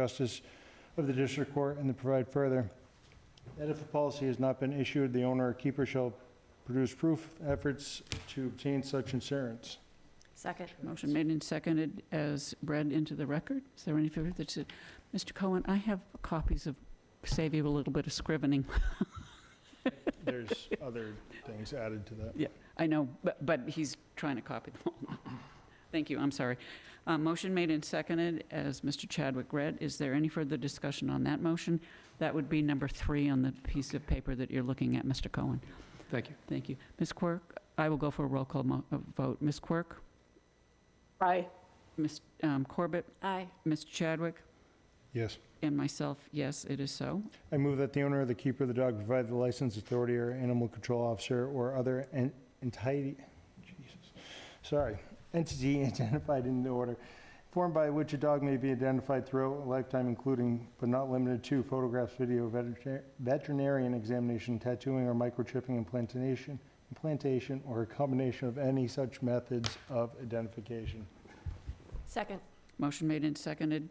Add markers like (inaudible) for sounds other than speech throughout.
Justice of the District Court and to provide further that if a policy has not been issued, the owner or keeper shall produce proof of efforts to obtain such insurance. Second. Motion made and seconded as read into the record. Is there any further that's, Mr. Cohen, I have copies of, save you a little bit of scrivening. There's other things added to that. I know, but, but he's trying to copy them all. Thank you, I'm sorry. Uh, Motion made and seconded as Mr. Chadwick read. Is there any further discussion on that motion? That would be number three on the piece of paper that you're looking at, Mr. Cohen. Thank you. Thank you. Ms. Quirk, I will go for a roll call mo- uh, vote. Ms. Quirk? Aye. Ms. um, Corbett? Aye. Mr. Chadwick? Yes. And myself, yes, it is so. I move that the owner or the keeper of the dog provide the licensed authority or animal control officer or other en- entity, Jesus, sorry, entity (laughs) identified in the order, form by which a dog may be identified throughout a lifetime, including but not limited to photographs, video, veterinar- veterinarian examination, tattooing or microchipping implantation, implantation, or a combination of any such methods of identification. Second. Motion made and seconded,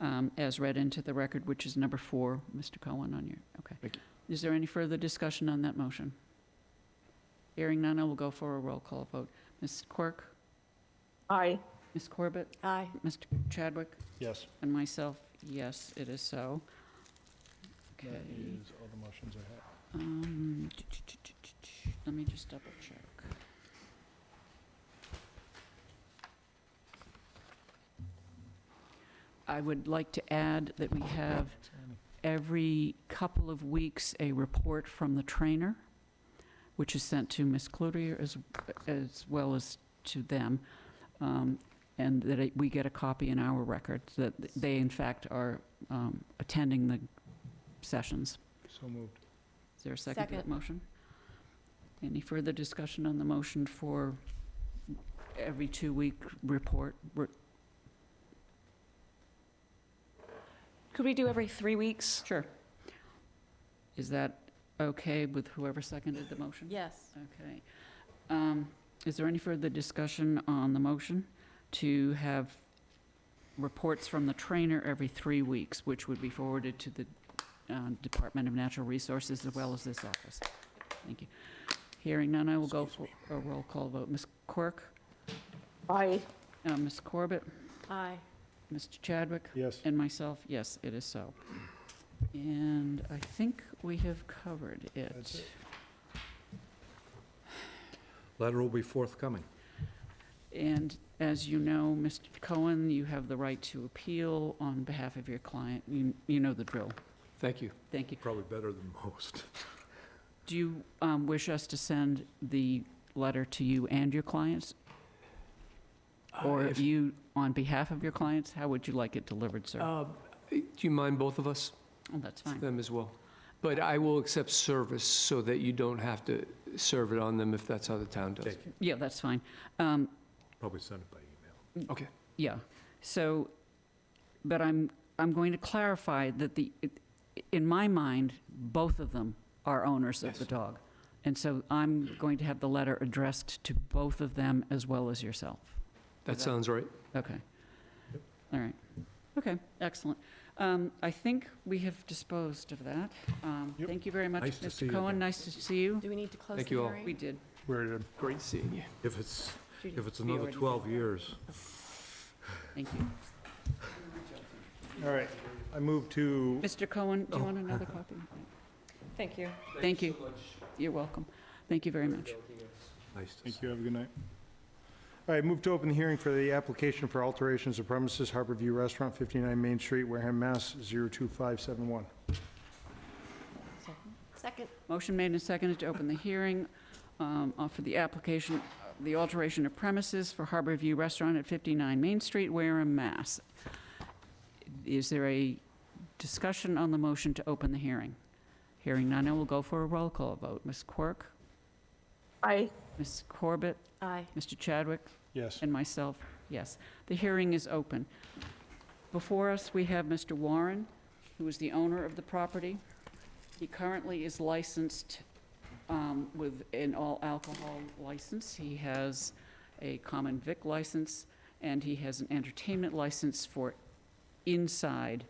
um, as read into the record, which is number four, Mr. Cohen, on your, okay. Thank Is there any further discussion on that motion? Hearing none, I will go for a roll call vote. Ms. Quirk? Aye. Ms. Corbett? Aye. Mr. Chadwick? Yes. And myself, yes, it is so. Okay. all the motions I have. um, Let me just double check. I would like to add that we have every couple of weeks a report from the trainer, which is sent to Ms. Cloutier as, as well as to them, um, and that it- we get a copy in our records, that they in fact are um, attending the sessions. So moved. Is there a second to that Second. motion? Any further discussion on the motion for every two-week report? Re- Could we do every three weeks? Sure. Is that okay with whoever seconded the motion? Yes. Okay. Um, Is there any further discussion on the motion to have reports from the trainer every three weeks, which would be forwarded to the uh, Department of Natural Resources as well as this office? Thank you. Hearing none, I will go for a roll call vote. Ms. Quirk? Aye. uh, Ms. Corbett? Aye. Mr. Chadwick? Yes. And myself, yes, it is so. And I think we have covered That's it. it. Letter will be forthcoming. And as you know, Mr. Cohen, you have the right to appeal on behalf of your client. You, you know the drill. Thank you. Thank you. Probably better than most. Do you um, wish us to send the letter to you and your clients? Or Uh, if- you, on behalf of your clients, how would you like it delivered, sir? Oh, Uh, Do you mind both of us, that's fine. them as well? But I will accept service so that you don't have to serve it on them if that's how the town does. it. Yeah, that's fine. Um, Probably send it by email. Okay, Yeah, so, but I'm, I'm going to clarify that the, in my mind, both of them are owners of the Yes. dog. And so I'm going to have the letter addressed to both of them as well as yourself. that sounds right. Okay. All right. Okay, excellent. Um, I think we have disposed of that. Um, Yep. Thank you very much, Nice to see Mr. you Cohen. again. Nice to see you. Do we need to close the Thank you all. hearing? We did. We're good. Great seeing you. If it's, Judy, if it's we another already did 12 that. years. Thank you. All right, I move to Mr. Cohen, do you Oh. want (laughs) another copy? Thank you. Thank you. You're welcome. Thank you very much. Nice to see Thank you, have a good night. All right, move to open the hearing for the application for alterations of premises, Harbor View Restaurant, 59 Main Street, Wareham, Mass. 02571. Second. Motion made and seconded to open the hearing um, uh, for the application, uh, the alteration of premises for Harbor View Restaurant at 59 Main Street, Wareham, Mass. Is there a discussion on the motion to open the hearing? Hearing none, I will go for a roll call vote. Ms. Quirk, Aye. Ms. Corbett, Aye. Mr. Chadwick, Yes. and myself, yes. The hearing is open. Before us, we have Mr. Warren, who is the owner of the property. He currently is licensed um, with an all-alcohol license. He has a common vic license, and he has an entertainment license for inside